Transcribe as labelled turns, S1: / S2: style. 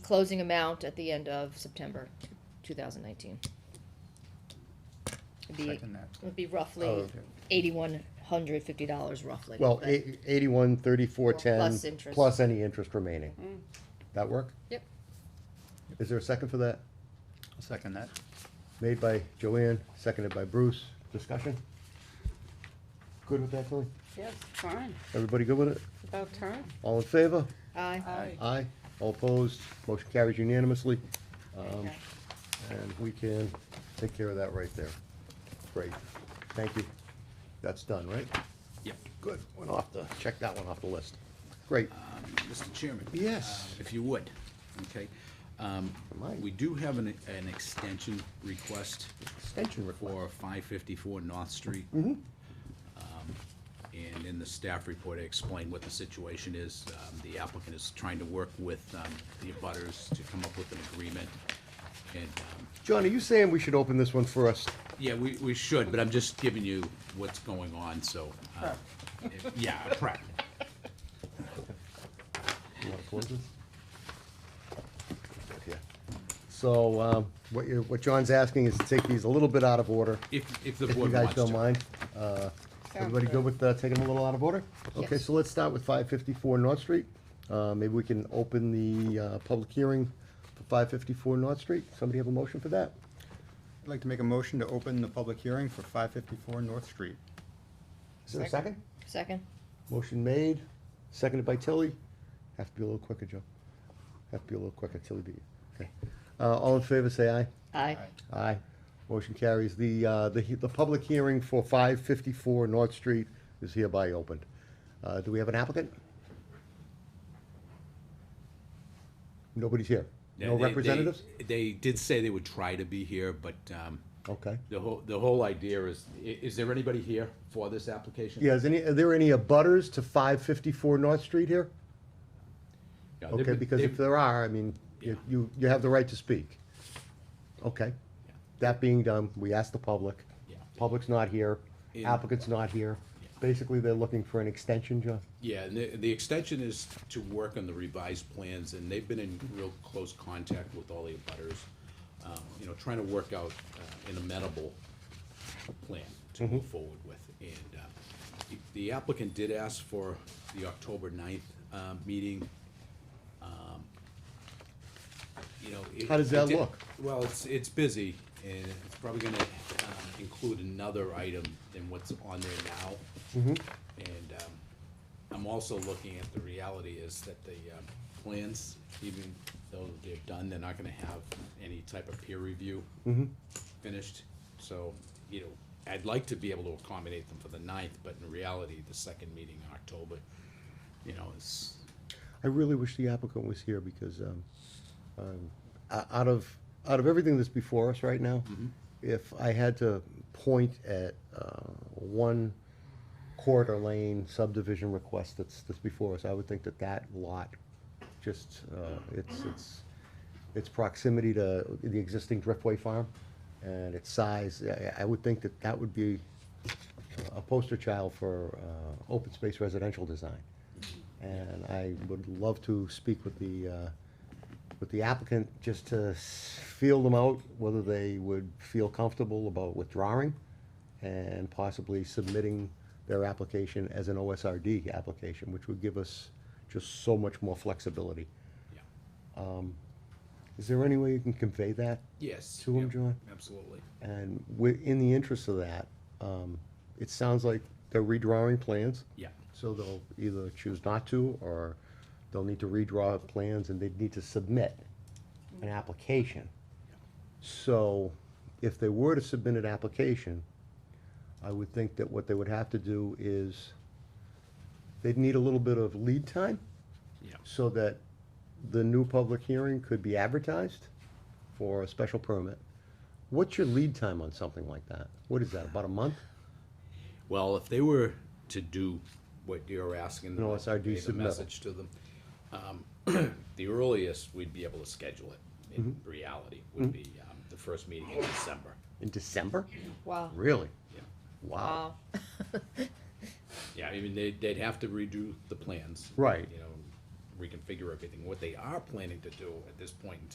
S1: closing amount at the end of September two thousand nineteen. It'd be,
S2: Second that.
S1: it'd be
S2: Oh,
S1: roughly
S2: okay.
S1: eighty-one hundred fifty dollars roughly.
S3: Well,
S1: but-
S3: eight- eighty-one, thirty-four, ten.
S1: Plus interest. Mm.
S3: plus any interest remaining. That work?
S1: Yep.
S3: Is there a second for that?
S2: I'll second that.
S3: Made by Joanne, seconded by Bruce. Discussion? Good with that, Colleen?
S4: Yes, fine,
S3: Everybody good with it?
S4: about time.
S3: All in favor?
S1: Aye.
S4: Aye.
S3: Aye. All opposed? Motion carries unanimously. Um,
S1: Okay.
S3: and we can take care of that right there. Great. Thank you. That's done, right?
S5: Yep.
S3: Good. Went off the, check that one off the list. Great.
S5: Mr. Chairman?
S3: Yes.
S5: uh, If you would, okay. Um,
S3: Mike.
S5: We do have an, an extension request
S3: Extension request.
S5: for five fifty-four North Street.
S3: Mm-hmm.
S5: Um, And in the staff report, I explained what the situation is. Um, The applicant is trying to work with um, the abutters to come up with an agreement. And, um,
S3: John, are you saying we should open this one first?
S5: yeah, we, we should, but I'm just giving you what's going on, so. uh, if- Yeah, prep.
S3: You wanna close this? Yeah. So, um, what you, what John's asking is to take these a little bit out of order,
S5: If, if the
S3: if you
S5: board wants
S3: guys
S5: to.
S3: don't mind. Uh, Everybody
S4: good.
S3: good with, uh, taking them a little out of order? Okay,
S1: Yes.
S3: so let's start with five fifty-four North Street. Uh, maybe we can open the, uh, public hearing for five fifty-four North Street. Somebody have a motion for that?
S2: I'd like to make a motion to open the public hearing for five fifty-four North Street.
S3: Is there a
S4: Second.
S3: second?
S1: Second?
S3: Motion made, seconded by Tilly. Have to be a little quicker, Joe. Have to be a little quicker, Tilly beat you. Okay. Uh, all in favor, say aye.
S1: Aye.
S3: Aye. Motion carries. The, uh, the, he- the public hearing for five fifty-four North Street is hereby opened. Uh, do we have an applicant? Nobody's here.
S5: Yeah,
S3: No
S5: they- they-
S3: representatives?
S5: They did say they would try to be here, but um,
S3: Okay.
S5: the whole, the whole idea is, i- is there anybody here for this application?
S3: Yeah, is any, are there any abutters to five fifty-four North Street here?
S5: Yeah, Uh, they've
S3: Okay,
S5: been-
S3: because if
S5: they've-
S3: there are, I mean, you,
S5: Yeah.
S3: you, you have the right to speak. Okay.
S5: Yeah.
S3: That being done, we asked the public.
S5: Yeah.
S3: Public's not here,
S5: In-
S3: applicant's not here.
S5: Yeah.
S3: Basically, they're looking for an extension, John?
S5: Yeah, and the, the extension is to work on the revised plans, and they've been in real close contact with all the abutters, um, you know, trying to work out uh, an amenable plan to
S3: Mm-hmm.
S5: move forward with. And uh, the- the applicant did ask for the October 9th uh, meeting. Um, You know. it-
S3: How does
S5: it
S3: that
S5: did-
S3: look?
S5: Well, it's, it's busy, and it's probably gonna um, include another item than what's on there now.
S3: Mm-hmm.
S5: And um, I'm also looking at the reality is that the um, plans, even though they're done, they're not gonna have any type of peer review
S3: Mm-hmm.
S5: finished. So, you know, I'd like to be able to accommodate them for the ninth, but in reality, the second meeting in October, you know, is,
S3: I really wish the applicant was here because, um, um, o- out of, out of everything that's before us right now, if I had to point at, uh, one quarter lane subdivision request that's, that's before us, I would think that that lot, just, uh, it's, it's, its proximity to the existing Driftway Farm and its size, I, I would think that that would be a poster child for, uh, open space residential design. And I would love to speak with the, uh, with the applicant, just to s- feel them out, whether they would feel comfortable about withdrawing and possibly submitting their application as an OSRD application, which would give us just so much more flexibility.
S5: yeah.
S3: Is there any way you can convey that?
S5: Yes.
S3: To 'em,
S5: yep,
S3: John?
S5: Absolutely.
S3: And wi- in the interest of that, um, it sounds like they're redrawing plans.
S5: Yeah.
S3: So they'll either choose not to, or they'll need to redraw plans and they'd need to submit an application. So if they were to submit an application, I would think that what they would have to do is, they'd need a little bit of lead time
S5: Yeah.
S3: so that the new public hearing could be advertised for a special permit. What's your lead time on something like that? What is that, about a month?
S5: Well, if they were to do what you're asking them,
S3: No, it's our due
S5: convey the
S3: submittal.
S5: message to them, um, the earliest we'd be able to schedule it, in
S3: Mm-hmm.
S5: reality, would be um, the first meeting in December.
S3: In December?
S1: Wow.
S3: Really?
S5: Yeah.
S3: Wow.
S1: Wow.
S5: Yeah, I mean, they'd, they'd have to redo the plans.
S3: Right.
S5: You know, reconfigure everything. What they are planning to do at this point in